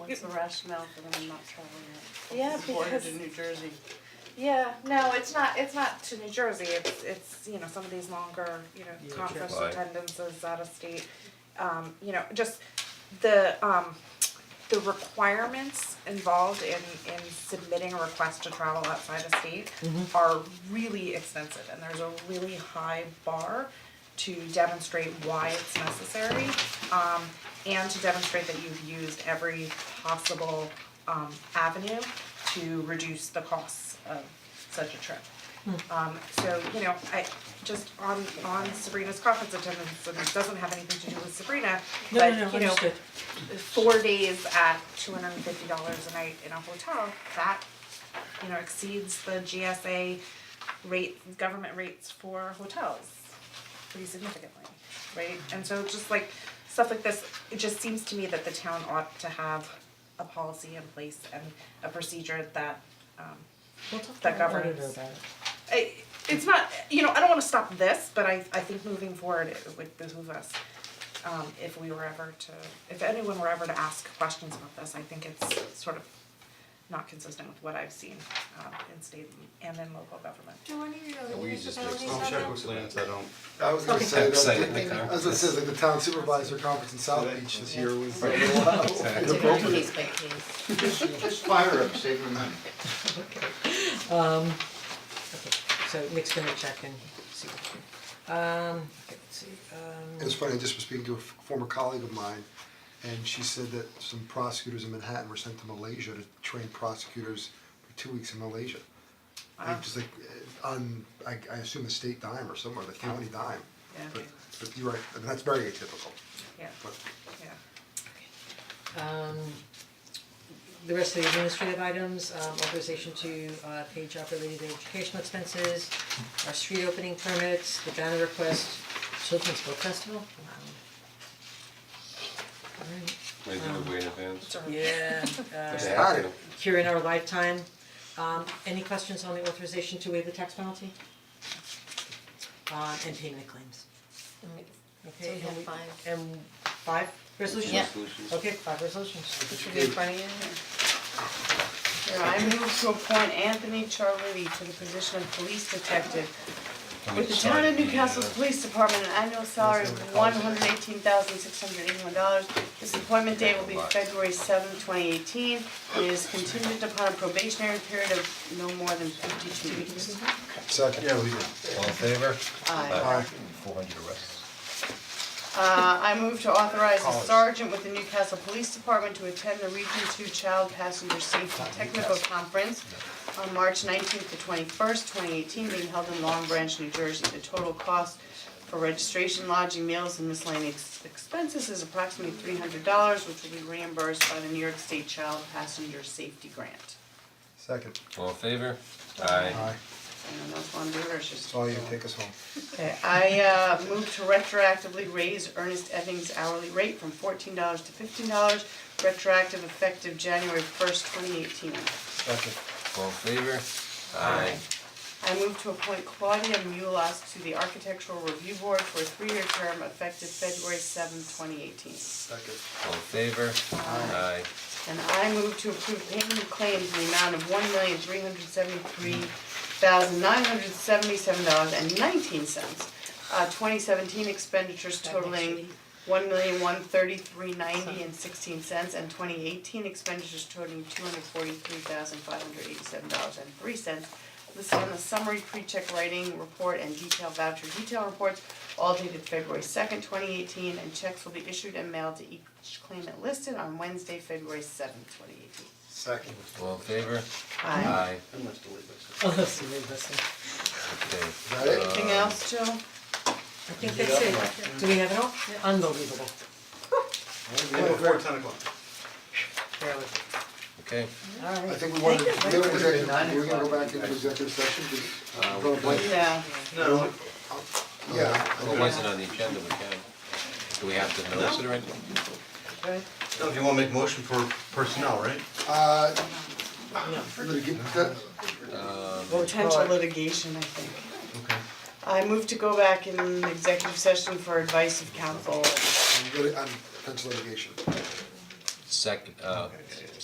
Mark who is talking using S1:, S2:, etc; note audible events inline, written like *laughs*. S1: what's the rationale for them not selling
S2: Yeah,
S3: Border
S2: because,
S3: to New Jersey.
S2: yeah, no, it's not, it's not to New Jersey, it's, it's, you know, some of these longer, you know, conference
S4: Why?
S2: attendances out of state. Um, you know, just the, um, the requirements involved in, in submitting a request to travel outside of state are really extensive, and there's a really high bar to demonstrate why it's necessary, um, and to demonstrate that you've used every possible, um, avenue to reduce the costs of such a trip. Um, so, you know, I, just on, on Sabrina's conference attendance, so this doesn't have anything to do with Sabrina, but, you know, four days at two hundred and fifty dollars a night in a hotel, that, you know, exceeds the GSA rate, government rates for hotels pretty significantly, right? And so just like, stuff like this, it just seems to me that the town ought to have a policy in place and a procedure that, um, that governs. I, it's not, you know, I don't wanna stop this, but I, I think moving forward, it would behoove us, um, if we were ever to, if anyone were ever to ask questions about this, I think it's sort of not consistent with what I've seen, um, in state and in local government.
S5: Do any of your other
S4: We just do
S5: municipalities
S4: extension.
S5: have that?
S4: plans, I don't.
S6: I was gonna say,
S4: Okay. Say
S6: that
S4: it, Nick.
S6: I was gonna say, like, the town supervisor conference in South Beach this year was a little
S4: Exactly.
S6: inappropriate.
S7: Case by case.
S6: *laughs*
S8: Just fire up, save your money.
S7: So Nick's gonna check and see what we can. Um, okay, let's see,
S6: It
S7: um,
S6: was funny, I just was speaking to a f- former colleague of mine, and she said that some prosecutors in Manhattan were sent to Malaysia to train prosecutors for two weeks in Malaysia. Like, just like, uh, on, I, I assume the state dime or somewhere, the county dime,
S2: Yeah.
S6: but, but you're right, I mean, that's very atypical,
S2: Yeah,
S6: but.
S2: yeah.
S7: um, the rest of the administrative items, um, authorization to, uh, pay job related educational expenses, our street opening permits, the banner request, children's book festival, wow. Alright,
S4: They do it way in advance.
S7: Um, yeah, uh,
S4: They have to.
S7: here in our lifetime. Um, any questions on the authorization to waive the tax penalty? Uh, and payment of claims,
S5: So
S7: okay,
S5: we have
S7: and we-
S5: five.
S7: and five resolutions?
S5: Yeah.
S4: Solutions.
S7: Okay, five resolutions.
S5: Should be in front of you.
S3: I move to appoint Anthony Charletti to the position of police detective
S4: Can we
S3: with the
S4: sign
S3: town of
S4: the,
S3: Newcastle's
S4: uh,
S3: Police Department, an annual salary of one hundred eighteen thousand six hundred eighty-one dollars. This appointment date will be February seventh, twenty eighteen, and is contingent upon a probationary period of no more than fifty-two weeks.
S6: Second. Yeah, we did.
S4: All in favor?
S3: Aye.
S4: Four hundred arrests.
S3: Uh, I move to authorize a sergeant with the Newcastle Police Department to attend the Region Two Child Passenger Safety Technical Conference on March nineteenth to twenty-first, twenty eighteen, being held in Long Branch, New Jersey. The total cost for registration, lodging, meals, and miscellaneous expenses is approximately three hundred dollars, which will be reimbursed by the New York State Child Passenger Safety Grant.
S6: Second,
S4: All in favor? Aye.
S6: aye,
S3: Anyone else want to do it, or it's just?
S6: it's all you, take us home.
S3: Okay, I uh move to retroactively raise Ernest Evans hourly rate from fourteen dollars to fifteen dollars, retroactive effective January first, twenty eighteen.
S6: Second.
S4: All in favor? Aye.
S3: I move to appoint Claudia Mulas to the Architectural Review Board for a three-year term effective February seventh, twenty eighteen.
S6: Second.
S4: All in favor? Aye.
S3: And I move to approve payment of claims in the amount of one million three hundred seventy-three thousand nine hundred seventy-seven dollars and nineteen cents. Uh, twenty seventeen expenditures totaling one million one thirty-three ninety and sixteen cents, and twenty eighteen expenditures totaling two hundred forty-three thousand five hundred eighty-seven dollars and three cents. Listed on the summary pre-check writing report and detail voucher detail reports, all dated February second, twenty eighteen, and checks will be issued and mailed to each claimant listed on Wednesday, February seventh, twenty eighteen.
S6: Second.
S4: All in favor?
S3: Aye.
S8: I must have leave this.
S7: *laughs* Oh, that's the real blessing.
S4: Okay. Uh,
S6: Got it?
S3: Anything else, Joe?
S7: I think that's it. Do we have it all? Unbelievable.
S8: Before ten o'clock.
S7: Barely.
S4: Okay.
S6: I
S7: Alright.
S6: think we wanted, we
S7: Thank you.
S6: were gonna, we were gonna go back into executive session, did, uh, we're gonna blank-
S3: Yeah.
S8: No,
S6: yeah, I
S4: Well,
S6: think
S4: it wasn't on the agenda, we can. Do we have to notice it or anything?
S8: no, if you wanna make motion for personnel, right?
S6: Uh,
S7: No.
S6: litig- that-
S3: Potential litigation, I think.
S8: Okay.
S3: I move to go back in executive session for advice of counsel.
S6: lit- on potential litigation.
S4: second, uh,